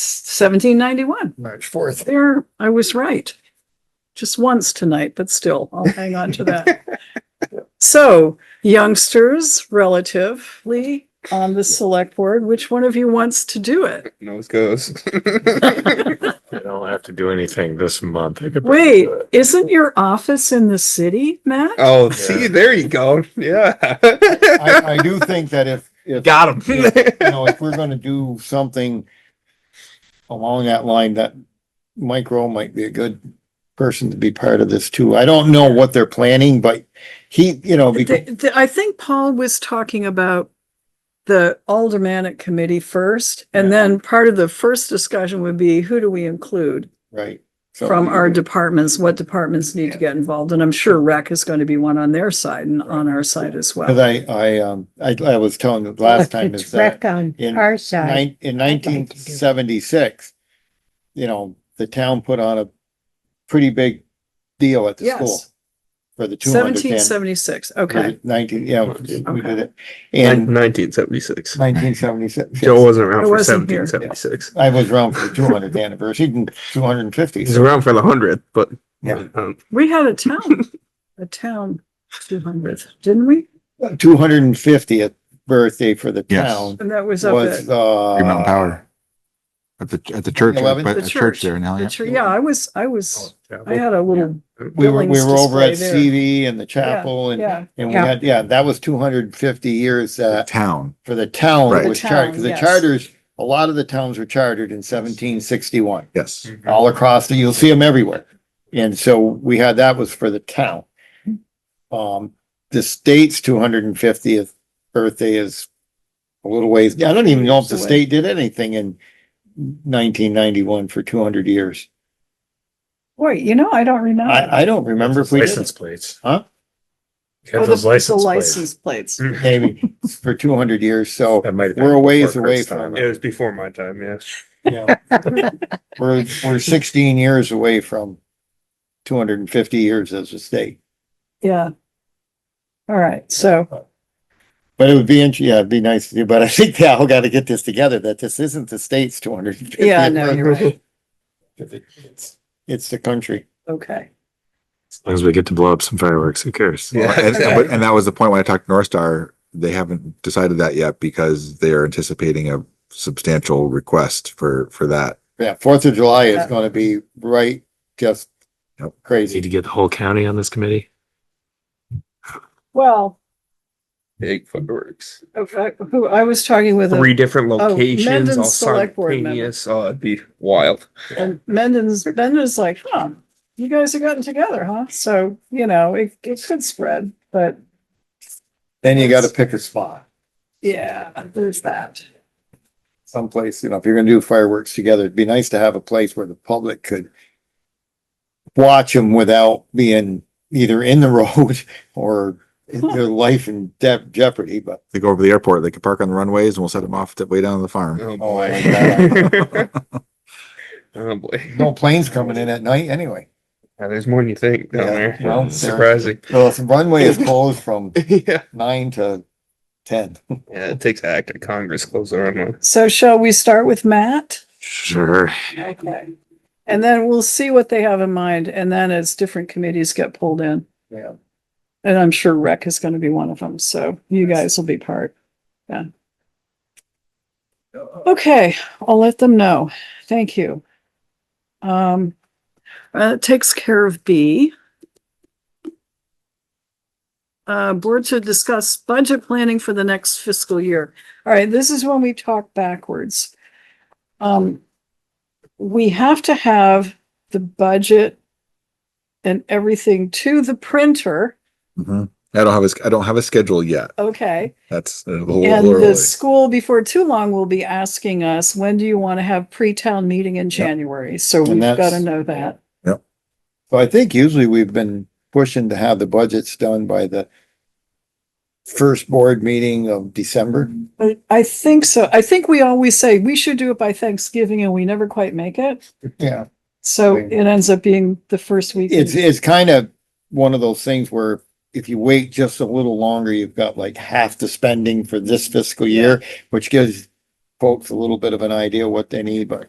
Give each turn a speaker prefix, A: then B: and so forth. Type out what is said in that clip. A: seventeen ninety-one.
B: March fourth.
A: There, I was right. Just once tonight, but still, I'll hang on to that. So youngsters relatively on the select board, which one of you wants to do it?
C: Nose goes.
D: I don't have to do anything this month. I could probably
A: Wait,
D: do it.
A: isn't your office in the city, Matt?
C: oh, see, there you go. Yeah.
B: I, I do think that if, if,
C: Got him.
B: you know, if we're gonna do something along that line, that Mike Rowe might be a good person to be part of this too. I don't know what they're planning, but he, you know,
A: The-
B: because,
A: the- I think Paul was talking about the aldermanic committee first, and then part of the first discussion would be who do we include
B: right. so-
A: from our departments, what departments need to get involved, and I'm sure rec is going to be one on their side and on our side as
B: Cause
A: well.
B: I, I, um, I, I was telling you last time is
E: It's
B: that
E: wreck on
B: in
E: our side.
B: nine, in
E: like to do.
B: nineteen seventy-six, you know, the town put on a pretty big deal at the school
A: Yes,
B: for the two hundred
A: seventeen
B: and
A: seventy-six,
B: for
A: okay.
B: the nineteen, yeah, we did it. And
C: Nineteen seventy-six.
B: nineteen seventy-six.
C: Joe wasn't
A: I
C: around for
A: wasn't here.
C: seventeen seventy-six.
B: I was around for the two hundredth anniversary, two hundred and fifty.
C: He's around for the hundredth, but.
B: Yeah.
C: Um,
A: We had a town, a town two hundredth, didn't we?
B: Two hundred and fiftieth birthday for the
F: Yes.
B: town
A: And that was up
B: was,
A: at
F: Green Mountain
B: uh,
F: Power. At the, at the church, uh,
B: 11?
F: but
A: the
F: a church
A: church.
F: there now,
A: The
F: yeah.
A: chur- Yeah, I was, I was, I had a little,
B: we were, we
A: Billings
B: were over at
A: display there.
B: CV and the chapel and,
A: yeah.
B: and we
E: Yeah.
B: had, yeah, that was two hundred and fifty years, uh,
F: Town.
B: for the town
F: Right.
B: that was
A: The
B: chartered,
A: town,
B: because the
A: yes.
B: charters, a lot of the towns were chartered in seventeen sixty-one.
F: Yes.
D: Oh,
B: All across, the you'll see them everywhere. And so we had, that was for the town. Um, the state's two hundred and fiftieth birthday is a little ways, I don't even know if the
A: Away.
B: state did anything in nineteen ninety-one for two hundred years.
A: wait, you know, I don't remember.
B: I, I don't remember if we did,
D: License plates.
B: Huh?
D: Get
A: Oh, the-
D: those
A: the
D: license plates.
A: License plates.
B: maybe, for two hundred years, so.
D: That might have
B: We're
D: been
B: a ways
D: before
B: away
D: Kurt's
B: from
D: time.
B: it.
D: It was before my time, yeah.
B: Yeah. We're, we're sixteen years away from two hundred and fifty years as a state,
A: Yeah. All right, so,
B: but it would be, int- yeah, it'd be nice to do, but I think they all gotta get this together, that this isn't the state's two hundred and fifty.
A: yeah, no, you're right.
B: It's the country.
A: Okay.
D: As long as we get to blow up some fireworks, who cares?
C: Yeah.
F: And, and- but- and that was the point when I talked to North Star, they haven't decided that yet because they are anticipating a substantial request for, for that.
B: Yeah, Fourth of July is
A: Yeah.
B: gonna be right, just
F: Yep.
D: Need
B: crazy.
D: to get the whole county on this committee?
A: Well,
C: Big fireworks.
A: I- who, I was talking with
C: Three
A: a-
C: different
A: Oh,
C: locations,
A: Mendon's
C: all
A: select board member.
C: simultaneous. Oh, it'd be wild.
A: and Mendon's, Mendon's like, huh, you guys have gotten together, huh? So, you know, it, it could spread, but
B: Then you gotta pick a spot,
A: yeah, there's that.
B: someplace, you know, if you're gonna do fireworks together, it'd be nice to have a place where the public could watch them without being either in the road or their life in de- jeopardy, but
F: They go over the airport, they can park on the runways and we'll set them off to way down to the farm.
C: Oh,
B: Oh, my
C: boy. Oh, boy.
B: No planes coming in at night anyway.
C: Yeah, there's more than you think down
B: Yeah,
C: there.
B: well,
C: It's
B: there-
C: surprising.
B: So the runway is closed from
C: Yeah.
B: nine to ten.
C: Yeah, it takes act of Congress close the runway.
A: So shall we start with Matt?
D: Sure.
A: Okay. And then we'll see what they have in mind, and then as different committees get pulled in.
B: Yeah.
A: And I'm sure rec is gonna be one of them, so you guys will be part. Yeah. Okay, I'll let them know. Thank you. Um, uh, it takes care of B. Uh, board to discuss budget planning for the next fiscal year. All right, this is when we talk backwards. Um, we have to have the budget and everything to the printer.
F: Mhm. I don't have a, sch- I don't have a schedule yet.
A: Okay,
F: That's a
B: Oh,
F: little
A: and
F: early.
A: the school before too long will be asking us, when do you want to have pre-town meeting in January? So
B: And
A: we've got to
B: that's-
A: know that.
B: So I think usually we've been pushing to have the budgets done by the first board meeting of December.
A: But I think so. I think we always say we should do it by Thanksgiving and we never quite make it.
B: Yeah.
A: So
B: Right.
A: it ends up being the first week. in-
B: It's, it's kind of one of those things where if you wait just a little longer, you've got like half the spending for this fiscal year, which gives folks a little bit of an idea what they need, but